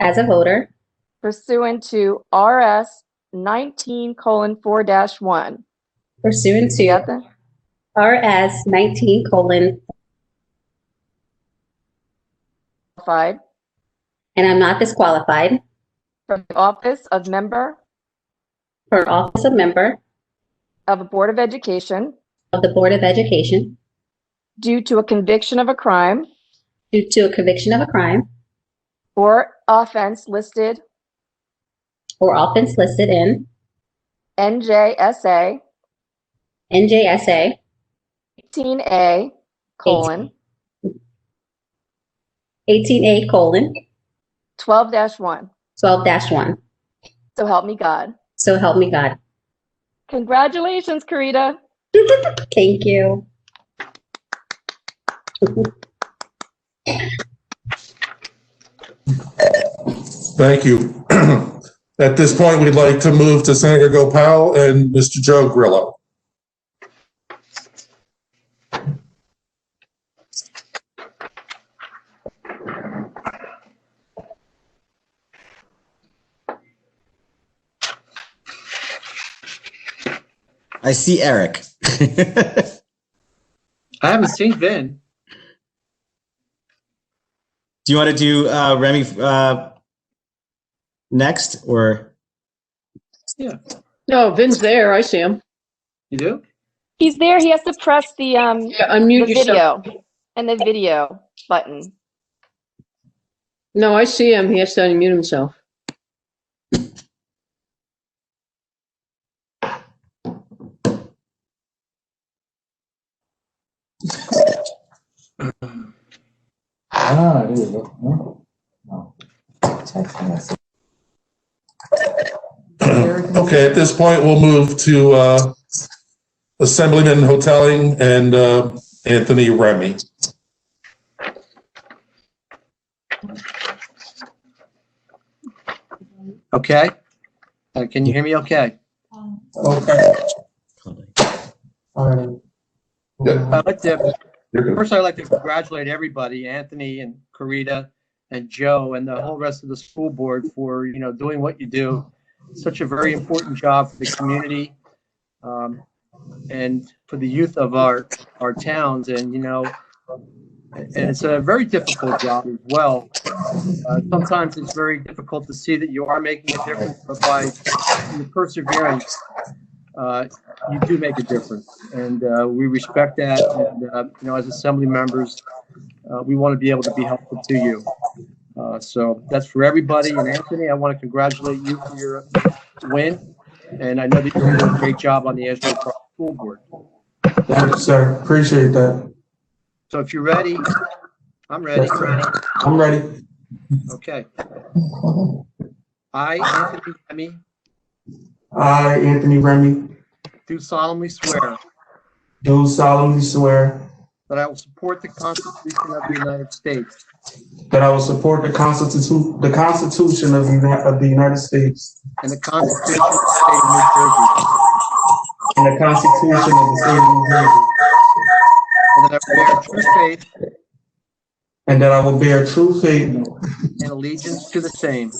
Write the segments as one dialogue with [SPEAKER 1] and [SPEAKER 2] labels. [SPEAKER 1] as a voter
[SPEAKER 2] pursuant to RS nineteen colon four dash one.
[SPEAKER 1] pursuant to RS 19 colon,
[SPEAKER 2] Qualified
[SPEAKER 1] and I'm not disqualified
[SPEAKER 2] from the office of member
[SPEAKER 1] for office of member
[SPEAKER 2] of a Board of Education
[SPEAKER 1] of the Board of Education
[SPEAKER 2] due to a conviction of a crime
[SPEAKER 1] due to a conviction of a crime
[SPEAKER 2] or offense listed
[SPEAKER 1] or offense listed in
[SPEAKER 2] NJSA
[SPEAKER 1] NJSA
[SPEAKER 2] eighteen A colon
[SPEAKER 1] 18A colon
[SPEAKER 2] twelve dash one.
[SPEAKER 1] 12 dash 1.
[SPEAKER 2] So help me God.
[SPEAKER 1] So help me God.
[SPEAKER 2] Congratulations, Karita.
[SPEAKER 1] Thank you.
[SPEAKER 3] Thank you. At this point, we'd like to move to Senator Gopal and Mr. Joe Grillo.
[SPEAKER 4] I see Eric.
[SPEAKER 5] I haven't seen Ben.
[SPEAKER 4] do you want to do uh, Remy uh, next or?
[SPEAKER 6] No, Vin's there. I see him.
[SPEAKER 5] You do?
[SPEAKER 2] He's there. He has to press the um
[SPEAKER 6] Yeah,
[SPEAKER 2] the
[SPEAKER 6] unmute yourself.
[SPEAKER 2] video and the video button.
[SPEAKER 6] No, I see him. He has to unmute himself.
[SPEAKER 3] Ah, there you go. Okay, at this point, we'll move to uh, Assemblyman Hoteling and uh, Anthony Remy.
[SPEAKER 5] Okay. Uh, can you hear me okay?
[SPEAKER 7] Okay, all right.
[SPEAKER 3] Yeah.
[SPEAKER 5] I'd like to,
[SPEAKER 3] You're good.
[SPEAKER 5] first I'd like to congratulate everybody, Anthony and Karita and Joe and the whole rest of the school board for, you know, doing what you do. Such a very important job for the community um, and for the youth of our, our towns and, you know, and it's a very difficult job as well. Uh, Sometimes it's very difficult to see that you are making a difference, but by your perseverance, uh, you do make a difference, and uh, we respect that. And uh, you know, as assembly members, uh, we want to be able to be helpful to you. Uh, so that's for everybody. And Anthony, I want to congratulate you for your win, and I know that you're doing a great job on the Ashland Park School Board.
[SPEAKER 7] Thank you, sir. Appreciate that.
[SPEAKER 5] So if you're ready, I'm ready.
[SPEAKER 7] I'm ready.
[SPEAKER 5] Okay. I, Anthony Remy,
[SPEAKER 7] I, Anthony Remy,
[SPEAKER 5] do solemnly swear
[SPEAKER 7] do solemnly swear
[SPEAKER 5] that I will support the Constitution of the United States
[SPEAKER 7] that I will support the Constitution, the Constitution of the, Uni- of the United States
[SPEAKER 5] and the Constitution of the State of New Jersey.
[SPEAKER 7] and the Constitution of the State of New Jersey,
[SPEAKER 5] And that I will bear true faith
[SPEAKER 7] and that I will bear true faith
[SPEAKER 5] and allegiance to the same, to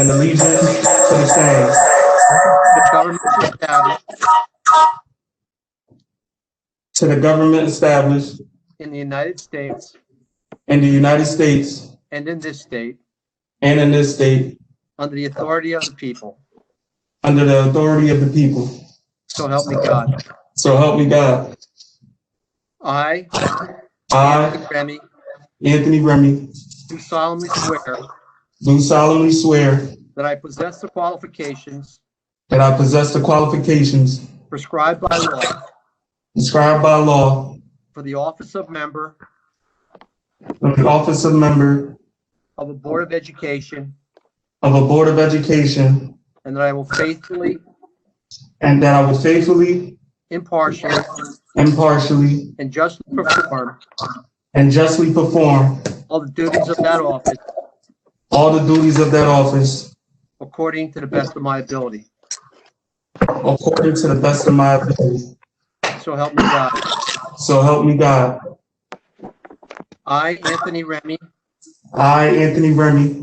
[SPEAKER 7] and allegiance to the same,
[SPEAKER 5] the government established
[SPEAKER 7] to the government established
[SPEAKER 5] in the United States
[SPEAKER 7] in the United States
[SPEAKER 5] and in this state,
[SPEAKER 7] and in this state,
[SPEAKER 5] under the authority of the people.
[SPEAKER 7] under the authority of the people.
[SPEAKER 5] So help me God.
[SPEAKER 7] So help me God.
[SPEAKER 5] I,
[SPEAKER 7] I,
[SPEAKER 5] Anthony Remy,
[SPEAKER 7] Anthony Remy,
[SPEAKER 5] do solemnly swear
[SPEAKER 7] do solemnly swear
[SPEAKER 5] that I possess the qualifications
[SPEAKER 7] That I possess the qualifications
[SPEAKER 5] prescribed by law
[SPEAKER 7] prescribed by law
[SPEAKER 5] for the office of member
[SPEAKER 7] of the office of member
[SPEAKER 5] of a Board of Education,
[SPEAKER 7] of a Board of Education,
[SPEAKER 5] and that I will faithfully,
[SPEAKER 7] and that I will faithfully,
[SPEAKER 5] impartially,
[SPEAKER 7] impartially,
[SPEAKER 5] and justly perform
[SPEAKER 7] and justly perform
[SPEAKER 5] all the duties of that office
[SPEAKER 7] all the duties of that office
[SPEAKER 5] according to the best of my ability.
[SPEAKER 7] according to the best of my ability.
[SPEAKER 5] So help me God.
[SPEAKER 7] So help me God.
[SPEAKER 5] I, Anthony Remy,
[SPEAKER 7] I, Anthony Remy,